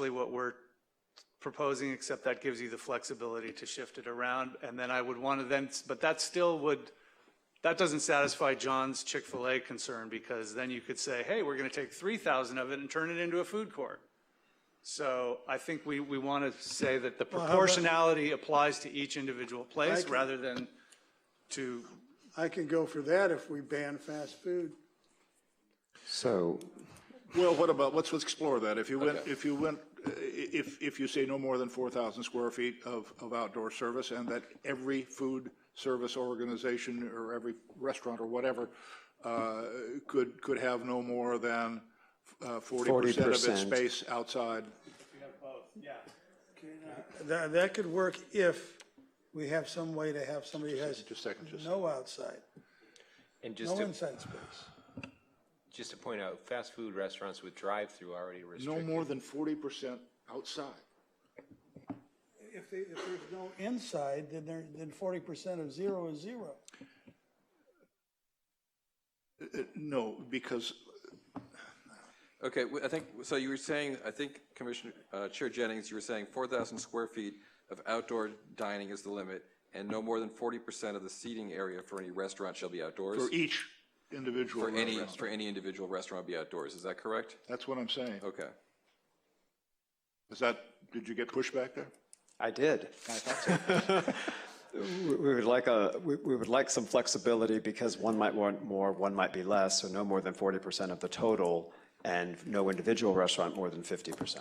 really what we're proposing, except that gives you the flexibility to shift it around. And then I would want to then, but that still would, that doesn't satisfy John's Chick-fil-A concern because then you could say, hey, we're going to take 3,000 of it and turn it into a food court. So I think we, we want to say that the how about- proportionality applies to each individual place can- rather than to, I can go for that if we ban fast food. So, Well, what about, let's, let's explore that. If you went, if you went, i- if, if you say no more than 4,000 square feet of, of outdoor service and that every food service organization or every restaurant or whatever uh, could, could have no more than uh, 40% of its 40%. space outside. That, that could work if we have some way to have somebody who has Just a second, just a no outside, And just no to, inside space. just to point out, fast food restaurants with drive-through already No restricted. more than 40% outside. If, they- if there's no inside, then there, then forty percent of zero is zero. Uh, No, because Okay, w- I think, so you were saying, I think Commissioner, uh, Chair Jennings, you were saying 4,000 square feet of outdoor dining is the limit, and no more than 40% of the seating area for any restaurant shall be outdoors? for each individual For any, restaurant. for any individual restaurant be outdoors, is that correct? That's what I'm saying. Okay. Is that, did you get pushback there? I did. We we would like a, we we would like some flexibility because one might want more, one might be less, so no more than 40% of the total, and no individual restaurant more than 50%.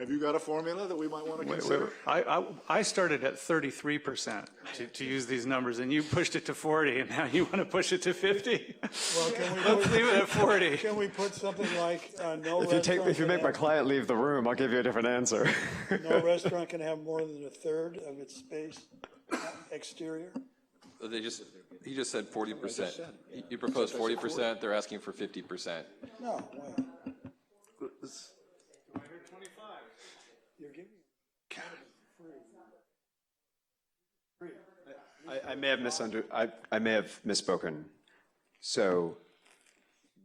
Have you got a formula that we might want to consider? I, I, I started at 33% to, to use these numbers and you pushed it to 40 and now you want to push it to 50? Well, can we, Let's put- leave it at 40. can we put something like, uh, no If you take, restaurant if you can make my have- client leave the room, I'll give you a different answer. No restaurant can have more than a third of its space exterior. So They just, he just said 40%. You- You proposed 40%, they're asking for 50%. No, way. You're giving. I, I may have misunder, I, I may have misspoken. So,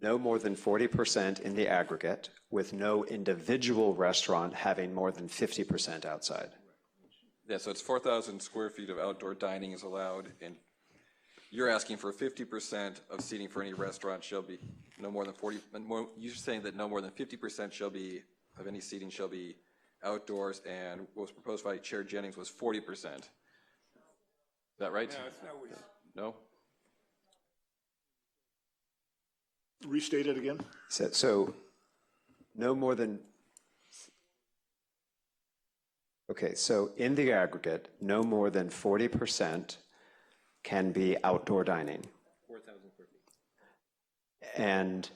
no more than 40% in the aggregate, with no individual restaurant having more than 50% outside. Yeah, so it's 4,000 square feet of outdoor dining is allowed, and you're asking for 50% of seating for any restaurant shall be no more than 40, and more- you're saying that no more than 50% shall be, of any seating shall be outdoors, and what was proposed by Chair Jennings was 40%. Is that right? No, it's not. No? Restate it again? So, so no more than, okay, so in the aggregate, no more than 40% can be outdoor dining. 4,000 And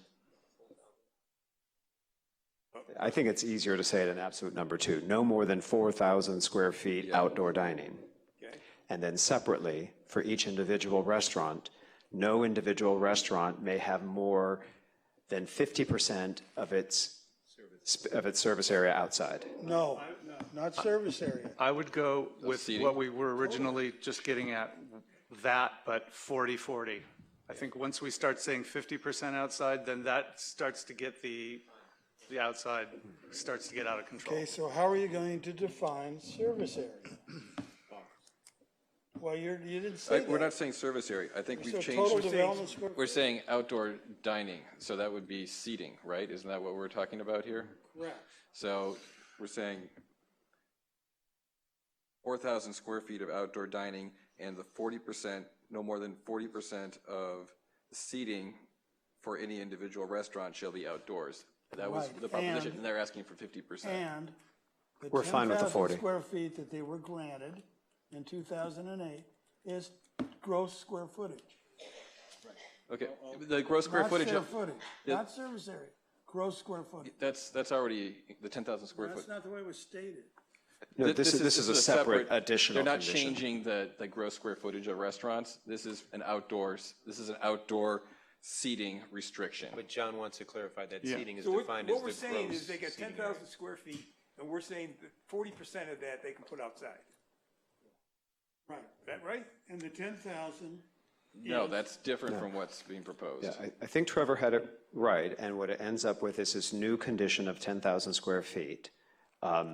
I think it's easier to say it in absolute number two, no more than 4,000 square feet outdoor dining. And then separately, for each individual restaurant, no individual restaurant may have more than 50% of its, sp- of its service area outside. No, not service area. I would go with seating. what we were originally just getting at, that, but 40, 40. I think once we start saying 50% outside, then that starts to get the, the outside starts to get out of control. Okay, so how are you going to define service area? Well, you're, you didn't say I- We're that. not saying service area, I think So we've total changed, development square. we're saying outdoor dining, so that would be seating, right? Isn't that what we're talking about here? So we're saying 4,000 square feet of outdoor dining and the 40%, no more than 40% of seating for any individual restaurant shall be outdoors. That was Right, the proposition, and- and they're asking for 50%. And the We're fine with the 10,000 40. Square feet that they were granted in two thousand and eight is gross square footage. Okay, the gross square Not footage, square of- footage, not service area, gross square footage. that's, that's already the 10,000 square foot. That's not the way it was stated. No, Th- this is, this is a separate additional They're not condition. changing the, the gross square footage of restaurants. This is an outdoors, this is an outdoor seating restriction. But John wants to clarify that seating is So what, defined as the gross. what we're saying is they got ten seating area. thousand square feet, and we're saying that forty percent of that they can put outside. Right. Is that right? And the ten thousand, No, that's different from what's being proposed. Yeah, I, I think Trevor had it right, and what it ends up with is this new condition of 10,000 square feet Um,